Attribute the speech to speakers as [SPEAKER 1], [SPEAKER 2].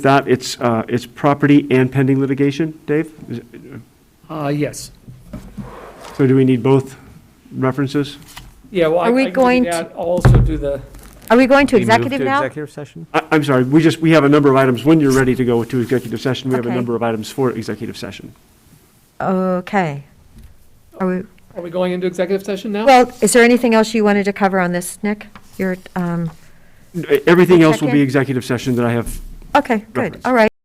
[SPEAKER 1] that, it's, uh, it's property and pending litigation, Dave? Is-
[SPEAKER 2] Uh, yes.
[SPEAKER 1] So do we need both references?
[SPEAKER 2] Yeah, well, I
[SPEAKER 3] Are we
[SPEAKER 2] I can
[SPEAKER 3] going
[SPEAKER 2] do
[SPEAKER 3] to-
[SPEAKER 2] that, I'll also do the,
[SPEAKER 3] Are we going to
[SPEAKER 4] We move
[SPEAKER 3] executive now?
[SPEAKER 4] executive session?
[SPEAKER 1] I, I'm sorry, we just, we have a number of items. When you're ready to go to executive session, we have a
[SPEAKER 3] Okay.
[SPEAKER 1] number of items for executive session.
[SPEAKER 3] Okay. Are we,
[SPEAKER 2] are we going into executive session now?
[SPEAKER 3] well, is there anything else you wanted to cover on this, Nick? You're, um,
[SPEAKER 1] Everything else will
[SPEAKER 3] Second.
[SPEAKER 1] be executive session that I have
[SPEAKER 3] okay, good,
[SPEAKER 1] Reference.
[SPEAKER 3] all right.